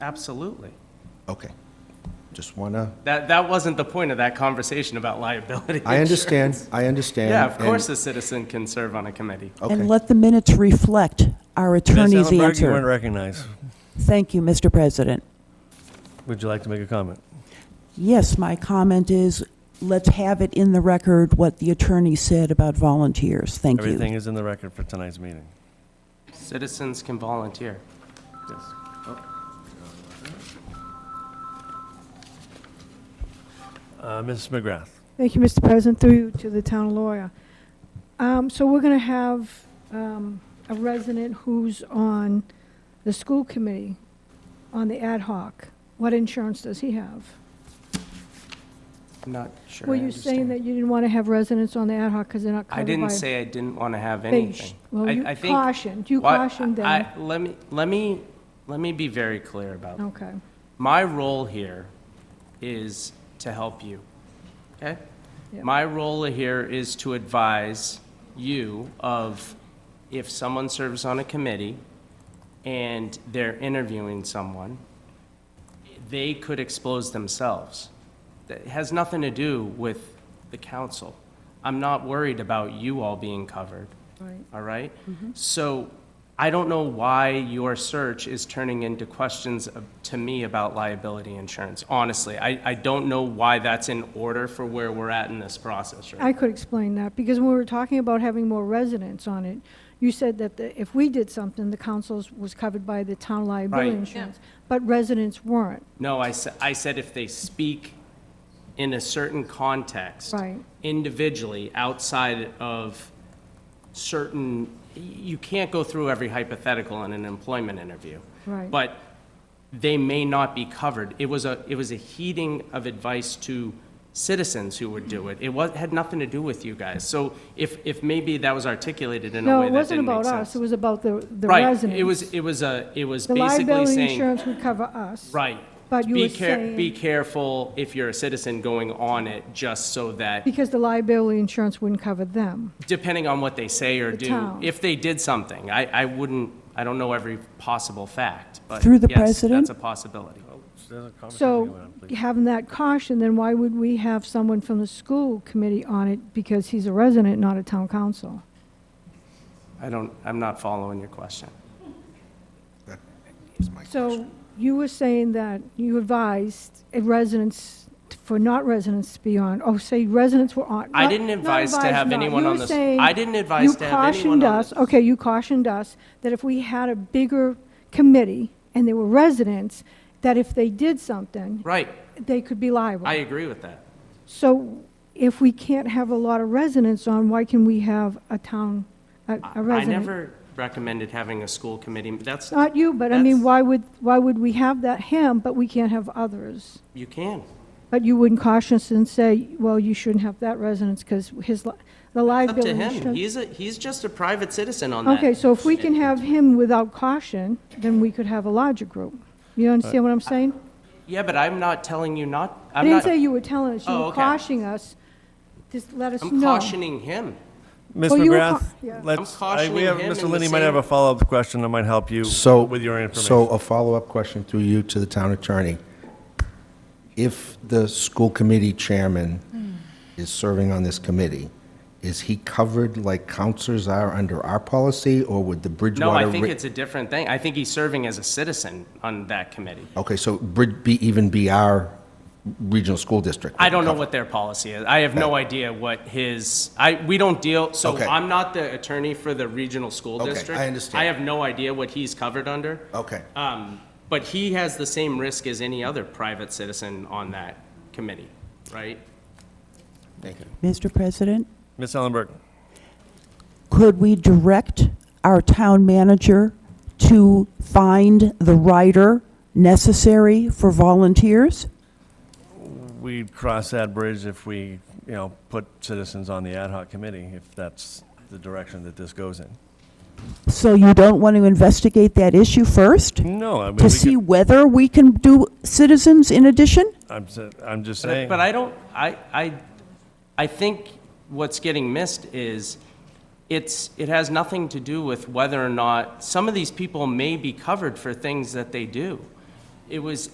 Absolutely. Okay. Just want to, That, that wasn't the point of that conversation about liability. I understand, insurance. I understand. Yeah, of and- course a citizen can serve on a committee. Okay, And let the minutes reflect our Ms. attorney's Ellenberg, you weren't answer. recognized. Thank you, Mr. President. Would you like to make a comment? Yes, my comment is, let's have it in the record what the attorney said about volunteers. Thank Everything you. is in the record for tonight's meeting. Citizens can volunteer. Yes. Uh, Mrs. McGrath, Thank you, Mr. President, through you to the town lawyer. Um, So we're going to have um, a resident who's on the school committee, on the ad hoc. What insurance does he have? I'm not sure. Were I you saying understand. that you didn't want to have residents on the ad hoc because they're not I covered by? didn't say I didn't want to have They anything. sh- Well, I- you I think- cautioned, you Well, I- cautioned them. I- Let me, let me, let me be very clear about this. Okay, My role here is to help you, okay? Yeah. My role here is to advise you of if someone serves on a committee and they're interviewing someone, they could expose themselves. That has nothing to do with the council. I'm not worried about you all being covered, right. all right? So I don't know why your search is turning into questions of- to me about liability insurance, honestly. I, I don't know why that's in order for where we're at in this process, right? I could explain that, because when we were talking about having more residents on it, you said that the- if we did something, the council's was covered by the town liability Right. insurance, but residents weren't. No, I said, I said if they speak in a certain context. Right. Individually, outside of certain, you can't go through every hypothetical in an employment interview. Right. But they may not be covered. It was a, it was a heeding of advice to citizens who would do it. It was, had nothing to do with you guys. So if, if maybe that was articulated in a No, way it that wasn't didn't make about us, sense. it was about the the residents. Right, it was, it was a, it was The basically liability saying. insurance would cover us. Right. But you Be were care- Be saying, careful if you're a citizen going on it, just so that, because the liability insurance wouldn't cover them. depending on what they say or do, town. if they did something, I, I wouldn't, I don't know every possible fact, but Through the yes, that's president? a possibility. So having that caution, then why would we have someone from the school committee on it because he's a resident, not a town council? I don't, I'm not following your question. that was my question. So you were saying that you advised a residents, for not residents to be on, oh, say residents were on. I not- didn't not advise to have not. anyone You on were this- saying I didn't advise to have anyone You cautioned on us, this. okay, you cautioned us that if we had a bigger committee and there were residents, that if they did something, Right, they could be liable. I agree with that. So if we can't have a lot of residents on, why can we have a town, a a I resident? never recommended having a school committee, that's, Not you, but I That's- mean, why would, why would we have that him, but we can't have others? you can. But you wouldn't caution us and say, well, you shouldn't have that residence because his, li- the It's up liability. to him, insurance- he's a, he's just a private citizen on that. Okay, so if we can have him without caution, then we could have a larger group. You understand what I'm saying? Yeah, but I'm not telling you not, I I'm didn't not, say you were telling us, you Oh, were okay. cautioning us, just let us know. I'm cautioning him. Ms. Well, you were McGrath, ca- yeah. let's, I'm I- we cautioning have, him in Mr. the Linney might same- have a follow-up question that might help you So. with your So information. a follow-up question through you to the town attorney. If the school committee chairman Hmm. is serving on this committee, is he covered like counselors are under our policy, or would the No, Bridgewater? I think Ri- it's a different thing. I think he's serving as a citizen on that committee. Okay, so Brid, be, even be our regional school district? I don't know what their policy is. I have no idea what his, I, we don't deal, so Okay. I'm not the attorney for the regional school Okay, district. I understand. I have no idea what he's covered under. Okay, Um, but he has the same risk as any other private citizen on that committee, right? thank you. Mr. President, Ms. Ellenberg, could we direct our town manager to find the writer necessary for volunteers? we'd cross that bridge if we, you know, put citizens on the ad hoc committee, if that's the direction that this goes in. So you don't want to investigate that issue first? No, I mean, we To see could- whether we can do citizens in addition? I'm, s- I'm just But- saying. But I don't, I, I, I think what's getting missed is, it's, it has nothing to do with whether or not, some of these people may be covered for things that they do. It was,